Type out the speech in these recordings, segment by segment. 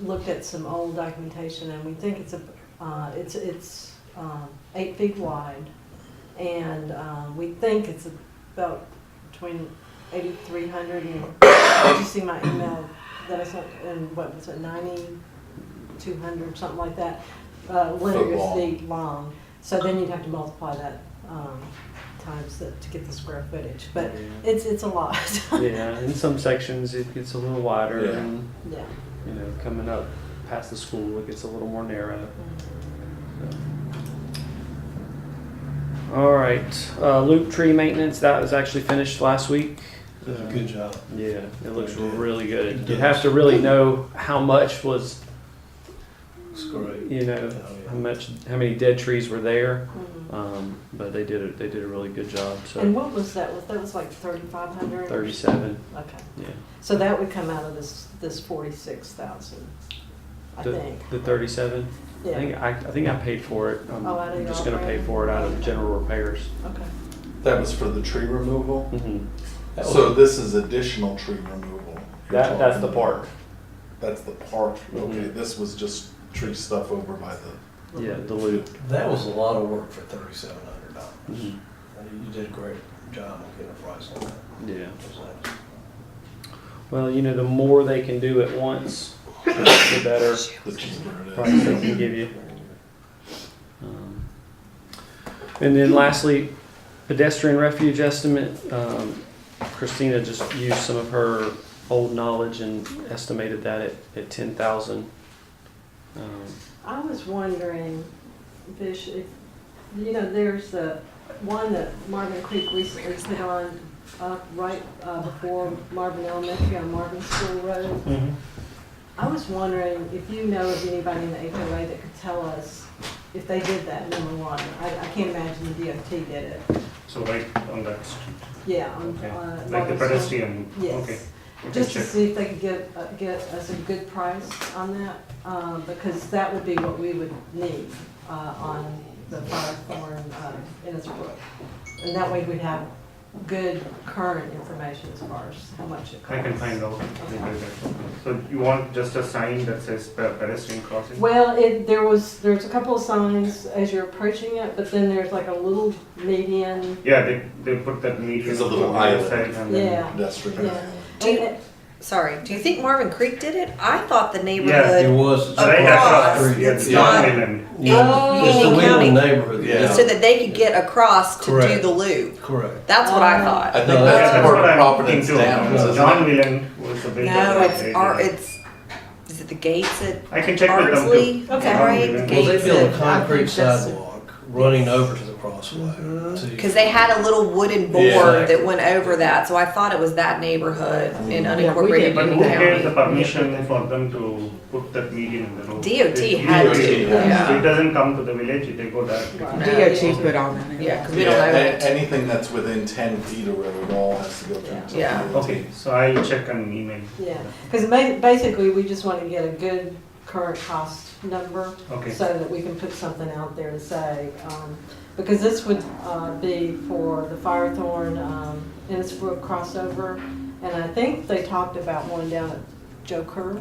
looked at some old documentation and we think it's a, uh, it's, it's, um, eight feet wide. And, um, we think it's about between eighty-three hundred and, did you see my email that I sent, and what was it, ninety-two hundred, something like that? Uh, linear Foot long. feet long, so then you'd have to multiply that, um, times the, to get the square footage, but Yeah. it's, it's a lot, Yeah, in some sections it gets a little wider Yeah. and, yeah. you know, coming up past the school, it gets a little more narrow. so. All right, uh, loop tree maintenance, that was actually finished last week. Did a good job. Yeah, it looks Yeah. really good. It You have to really know how much was, It's great. you know, Oh, yeah. how much, how many dead trees were there. Mhm. Um, but they did, a- they did a really good job, And so what was that? Was that was like thirty-five hundred? thirty-seven, Okay, yeah. so that would come out of this, this forty-six thousand, I The- think. The thirty-seven? I Yeah, think I, I think I paid for it. I'm, Oh, out of I'm your just gonna pay operating? for it out of general repairs. okay. That was for the tree removal? Mm-hmm. Oh. So this is additional tree removal? you're That, that's the talking park. about. That's the park, okay, Mhm. this was just tree stuff over by the, Yeah, the loop. That was a lot of work for thirty-seven hundred dollars. Mhm. You did a great job of getting a price on that. Yeah. It was nice. Well, you know, the more they can do at once, the better the cheaper it price they is. can give you. Um, And then lastly, pedestrian refuge estimate. Um, Christina just used some of her old knowledge and estimated that at, at ten thousand. Um, I was wondering, Bish, if, you know, there's the one that Marvin Creek recently put on, uh, right, uh, before Marvin Elementary on Marvin School Road. Mm-hmm. I was wondering if you know of anybody in the HOA that could tell us if they did that, number one. I, I can't imagine the DOT did it. So right on that street, Yeah, on, okay, uh, like the Marvin School. pedestrian, okay. Yes, just to see if they could get, uh, get us a good price on that, uh, because that would be what we would need uh, on the Firethorn uh, Innisbrook. And that way we'd have good current information as far as how much it costs. I can find out. So you want just a sign that says pe- pedestrian crossing? Well, it, there was, there's a couple of signs as you're approaching it, but then there's like a little median. Yeah, they, they put that median. It's a little on the other island. side and then- Yeah. Pedestrian. Yeah. Do you- And it- Sorry, do you think Marvin Creek did it? I thought the It neighborhood, was. Right across, Across, yeah, it's the not- island. Oh. It's the County. Wheeling neighborhood. Yeah. so that they could get across to do Correct. the loop. Correct. That's what I Oh. I thought. think No, Yeah, that's that's part what of I'm Providence thinking too. Downs, isn't John it? Whelan was the builder. No, that it's they our, did it. it's, is it the gates at I can check with them too. Ardsley? Okay. Right, the Well, Well, they gates built a at, concrete that's- sidewalk running over to the crossway. cause they had a little wooden Yeah. board that went over that, so I thought it was that neighborhood in we did. unincorporated But who Union gave the County. permission for them to put that median in the road? DOT It's to, had DOT. yeah. So It doesn't come to the village, they go directly. Right. DOT put on that. Yeah, cause we don't Yeah, know a- it. anything that's within ten feet of River Wall has to go Yeah. through. Yeah. Okay, so I'll check and email. Yeah, because basically, we just want to get a good current cost number. Okay. So that we can put something out there to say, um, because this would, uh, be for the Firethorn, um, Innisbrook crossover. And I think they talked about one down at Joe Kerr.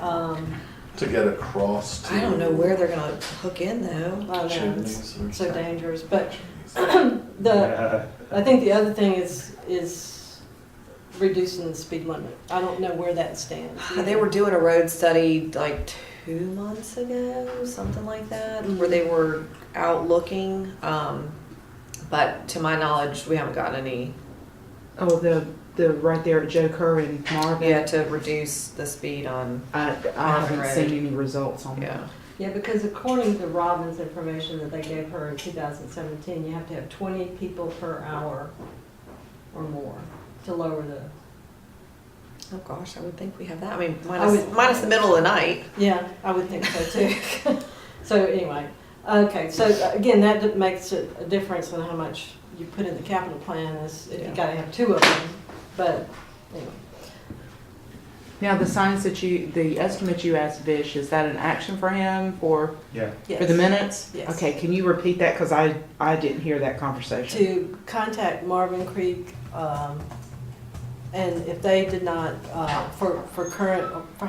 Um, To get across to. I don't know where they're gonna hook in though. I don't know, it's Chimneys or so something. dangerous, but Chimneys. the, Yeah. I think the other thing is, is reducing the speed limit. I don't know where that stands. They were doing a road study like two months ago, something like that, where they were out looking. Um, but to my knowledge, we haven't gotten any Oh, the, the, right there at Joe Kerr and Marvin. yeah to reduce the speed on. I, I Marvin haven't Road. seen any results on that. Yeah, Yeah, because according to Robin's information that they gave her in 2017, you have to have 20 people per hour or more to lower the, oh gosh, I would think we have that. I mean, I minus, would- minus the middle of the night. yeah, I would think so too. So anyway, okay, so again, that d- makes a a difference on how much you put in the capital plan is, if you Yeah. gotta have two of them, but anyway. Now, the signs that you, the estimate you asked Vish, is that an action for him for, Yeah. for the yes. minutes? Yes. Okay, can you repeat that? Cause I, I didn't hear that conversation. to contact Marvin Creek, um, and if they did not, uh, for, for current, for